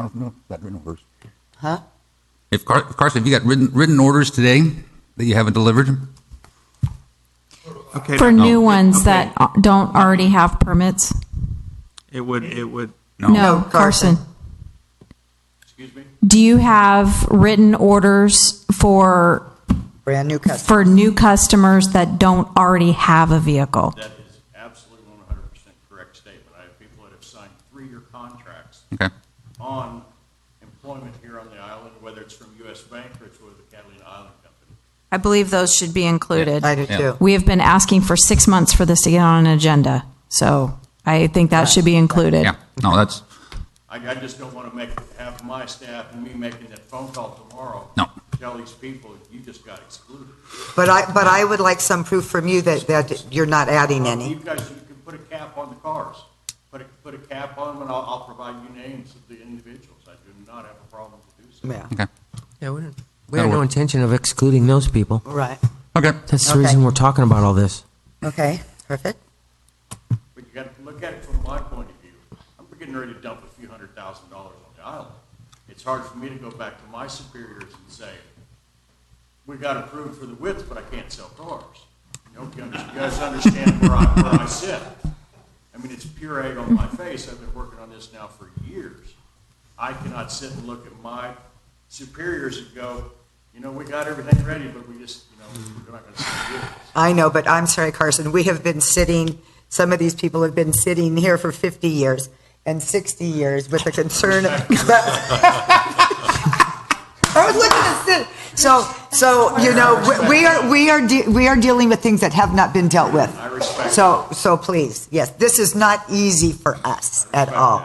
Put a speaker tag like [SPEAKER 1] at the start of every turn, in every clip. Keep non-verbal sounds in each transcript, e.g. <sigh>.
[SPEAKER 1] I don't know, that written orders.
[SPEAKER 2] Huh?
[SPEAKER 3] If Car- Carson, have you got written, written orders today that you haven't delivered?
[SPEAKER 4] Okay,
[SPEAKER 5] For
[SPEAKER 4] no,
[SPEAKER 5] new ones
[SPEAKER 4] okay.
[SPEAKER 5] that uh, don't already have permits?
[SPEAKER 4] It would, it would,
[SPEAKER 2] No, Carson.
[SPEAKER 5] Carson. Do you have written orders for,
[SPEAKER 2] Brand new customer.
[SPEAKER 5] for new customers that don't already have a vehicle?
[SPEAKER 6] That is absolutely one hundred percent correct statement. I have people that have signed three-year contracts
[SPEAKER 3] Okay.
[SPEAKER 6] on employment here on the island, whether it's from U.S. Bank or it's with the Catalina Island Company.
[SPEAKER 5] I believe those should be included.
[SPEAKER 2] I do
[SPEAKER 3] Yeah.
[SPEAKER 2] too.
[SPEAKER 5] We have been asking for six months for this to get on an agenda, so I think that should be included.
[SPEAKER 3] Yeah. No, that's,
[SPEAKER 6] I, I just don't want to make, have my staff and me making that phone call tomorrow.
[SPEAKER 3] No.
[SPEAKER 6] Tell these people, you just got excluded.
[SPEAKER 2] But I, but I would like some proof from you that, that you're not adding
[SPEAKER 6] Well,
[SPEAKER 2] any.
[SPEAKER 6] You guys, you can put a cap on the cars. Put a, put a cap on them and I'll, I'll provide you names of the individuals. I do not have a problem to do so.
[SPEAKER 2] Yeah,
[SPEAKER 3] okay.
[SPEAKER 7] Yeah, we, didn't, we
[SPEAKER 3] That'll
[SPEAKER 7] had no
[SPEAKER 3] work.
[SPEAKER 7] intention of excluding those people.
[SPEAKER 2] right.
[SPEAKER 3] Okay.
[SPEAKER 7] That's the
[SPEAKER 2] Okay.
[SPEAKER 7] reason we're talking about all this.
[SPEAKER 2] Okay, perfect.
[SPEAKER 6] But you got to look at it from my point of view. I'm getting ready to dump a few hundred thousand dollars on the island. It's hard for me to go back to my superiors and say, we got approved for the width, but I can't sell cars. You know, you under- you guys understand where I, where I sit. I mean, it's pure egg on my face. I've been working on this now for years. I cannot sit and look at my superiors and go, you know, we got everything ready, but we just, you know, we're not going to sell vehicles.
[SPEAKER 2] I know, but I'm sorry, Carson, we have been sitting, some of these people have been sitting here for 50 years and 60 years with the concern
[SPEAKER 6] <laughs>
[SPEAKER 2] of. <laughs> I was looking at this, so, so, you know, we- we are, we are, de- we are dealing with things that have not been dealt with.
[SPEAKER 6] I respect
[SPEAKER 2] So, so please, yes, this is not easy for us at all.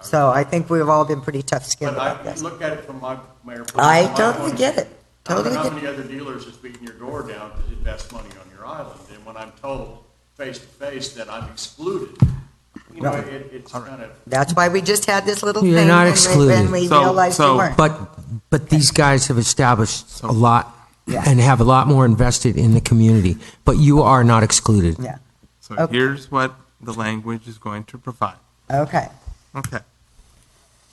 [SPEAKER 2] So I think we've all been pretty tough skinned
[SPEAKER 6] But
[SPEAKER 2] about
[SPEAKER 6] I
[SPEAKER 2] this.
[SPEAKER 6] look at it from my, Mayor. from
[SPEAKER 2] I
[SPEAKER 6] my
[SPEAKER 2] totally
[SPEAKER 6] point of
[SPEAKER 2] get
[SPEAKER 6] view.
[SPEAKER 2] it.
[SPEAKER 6] I don't know
[SPEAKER 2] Totally
[SPEAKER 6] How
[SPEAKER 2] get-
[SPEAKER 6] many other dealers is beating your door down to invest money on your island? And when I'm told face to face that I'm excluded, you know, it, it's kind of,
[SPEAKER 2] That's why we just had this little thing.
[SPEAKER 7] You're
[SPEAKER 2] and
[SPEAKER 7] not
[SPEAKER 2] we-
[SPEAKER 7] excluded.
[SPEAKER 2] And we
[SPEAKER 4] So-
[SPEAKER 2] realized you
[SPEAKER 4] so-
[SPEAKER 2] weren't.
[SPEAKER 7] But but these guys have established a lot
[SPEAKER 2] Yeah.
[SPEAKER 7] and have a lot more invested in the community. But you are not excluded.
[SPEAKER 2] Yeah,
[SPEAKER 4] so
[SPEAKER 2] Okay.
[SPEAKER 4] here's what the language is going to provide.
[SPEAKER 2] okay.
[SPEAKER 4] Okay.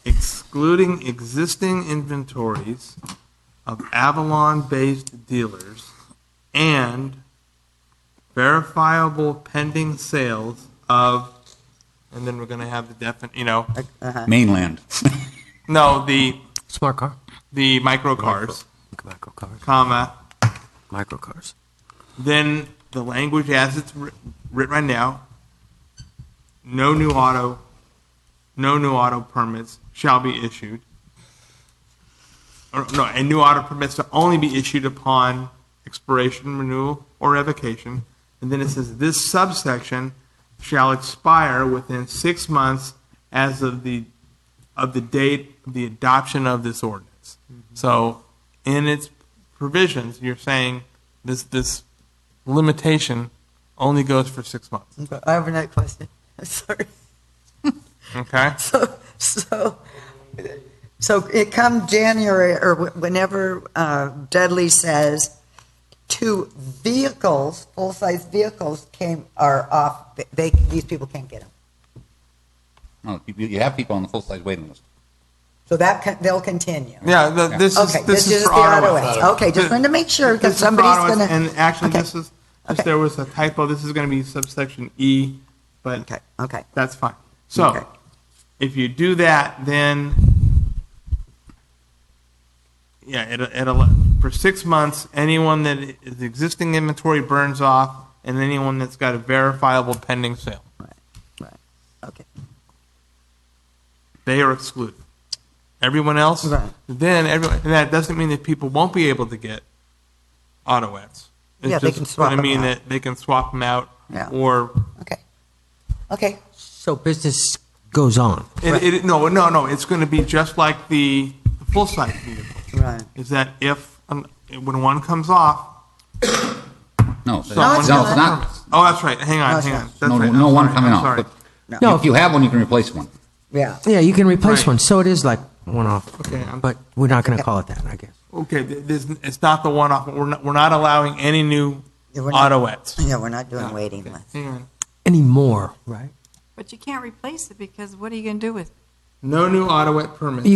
[SPEAKER 4] Excluding existing inventories of Avalon-based dealers and verifiable pending sales of, and then we're gonna have the definite, you know,
[SPEAKER 3] Mainland.
[SPEAKER 4] no, the,
[SPEAKER 7] Smart car,
[SPEAKER 4] the micro cars,
[SPEAKER 7] micro cars,
[SPEAKER 4] comma,
[SPEAKER 7] micro cars.
[SPEAKER 4] then the language as it's writ- written right now, no new auto, no new auto permits shall be issued. Or, no, and new auto permits to only be issued upon expiration, renewal, or revocation. And then it says this subsection shall expire within six months as of the of the date of the adoption of this ordinance. So, in its provisions, you're saying this this limitation only goes for six months.
[SPEAKER 2] I have another question. <laughs> Sorry.
[SPEAKER 4] Okay.
[SPEAKER 2] So, so, so it come January or wh- whenever uh, Dudley says two vehicles, full-size vehicles came, are off, they, these people can't get them.
[SPEAKER 3] <laughs> No, you, you have people on the full-size waiting list.
[SPEAKER 2] So that, con- they'll continue.
[SPEAKER 4] Yeah. The, this is
[SPEAKER 2] Okay,
[SPEAKER 4] this, is,
[SPEAKER 2] the
[SPEAKER 4] for auto.
[SPEAKER 2] auto ads. Okay, just wanted to make sure
[SPEAKER 4] This
[SPEAKER 2] because
[SPEAKER 4] is for
[SPEAKER 2] somebody's
[SPEAKER 4] auto ads,
[SPEAKER 2] gonna.
[SPEAKER 4] And actually,
[SPEAKER 2] Okay.
[SPEAKER 4] this is this,
[SPEAKER 2] Okay.
[SPEAKER 4] there was a typo. This is going to be subsection E, but
[SPEAKER 2] Okay, okay.
[SPEAKER 4] that's fine. So,
[SPEAKER 2] Okay.
[SPEAKER 4] if you do that, then yeah, it, it'll for six months. Anyone that is existing inventory burns off, and anyone that's got a verifiable pending sale,
[SPEAKER 2] Right, Okay.
[SPEAKER 4] they are excluded. Everyone else,
[SPEAKER 2] Right.
[SPEAKER 4] then everyone. And that doesn't mean that people won't be able to get auto ads. It's
[SPEAKER 2] Yeah, they
[SPEAKER 4] just
[SPEAKER 2] can swap
[SPEAKER 4] gonna
[SPEAKER 2] 'em
[SPEAKER 4] mean
[SPEAKER 2] out.
[SPEAKER 4] that they can swap them out,
[SPEAKER 2] Yeah.
[SPEAKER 4] or
[SPEAKER 2] Okay. Okay.
[SPEAKER 7] So business goes on.
[SPEAKER 4] It, it, no, no, no, it's gonna be just like the, the full-size vehicle,
[SPEAKER 2] Right.
[SPEAKER 4] is that if, um, when one comes off,
[SPEAKER 3] No, so- no,
[SPEAKER 4] someone
[SPEAKER 3] it's
[SPEAKER 4] gets a
[SPEAKER 3] not.
[SPEAKER 4] permit. Oh, that's right, hang
[SPEAKER 2] No,
[SPEAKER 4] on,
[SPEAKER 2] it's
[SPEAKER 4] hang
[SPEAKER 2] not.
[SPEAKER 4] on. That's
[SPEAKER 3] No,
[SPEAKER 4] right.
[SPEAKER 3] no
[SPEAKER 4] I'm
[SPEAKER 3] one
[SPEAKER 4] sorry,
[SPEAKER 3] coming
[SPEAKER 4] I'm
[SPEAKER 3] off,
[SPEAKER 4] sorry.
[SPEAKER 3] but-
[SPEAKER 7] No,
[SPEAKER 3] If you have one, you can replace one.
[SPEAKER 2] Yeah.
[SPEAKER 7] yeah, you can replace
[SPEAKER 4] Right.
[SPEAKER 7] one. So it is like one off.
[SPEAKER 4] Okay, I'm-
[SPEAKER 7] but we're not going to call it that, I guess.
[SPEAKER 4] Okay, th- this, it's not the one-off, we're not, we're not allowing any new
[SPEAKER 2] Yeah, we're not-
[SPEAKER 4] auto-ets.
[SPEAKER 2] Yeah, we're not doing waiting lists.
[SPEAKER 4] Hang on.
[SPEAKER 7] Anymore, right?
[SPEAKER 8] But you can't replace it because what are you going to do with it?
[SPEAKER 4] No new auto-et permits.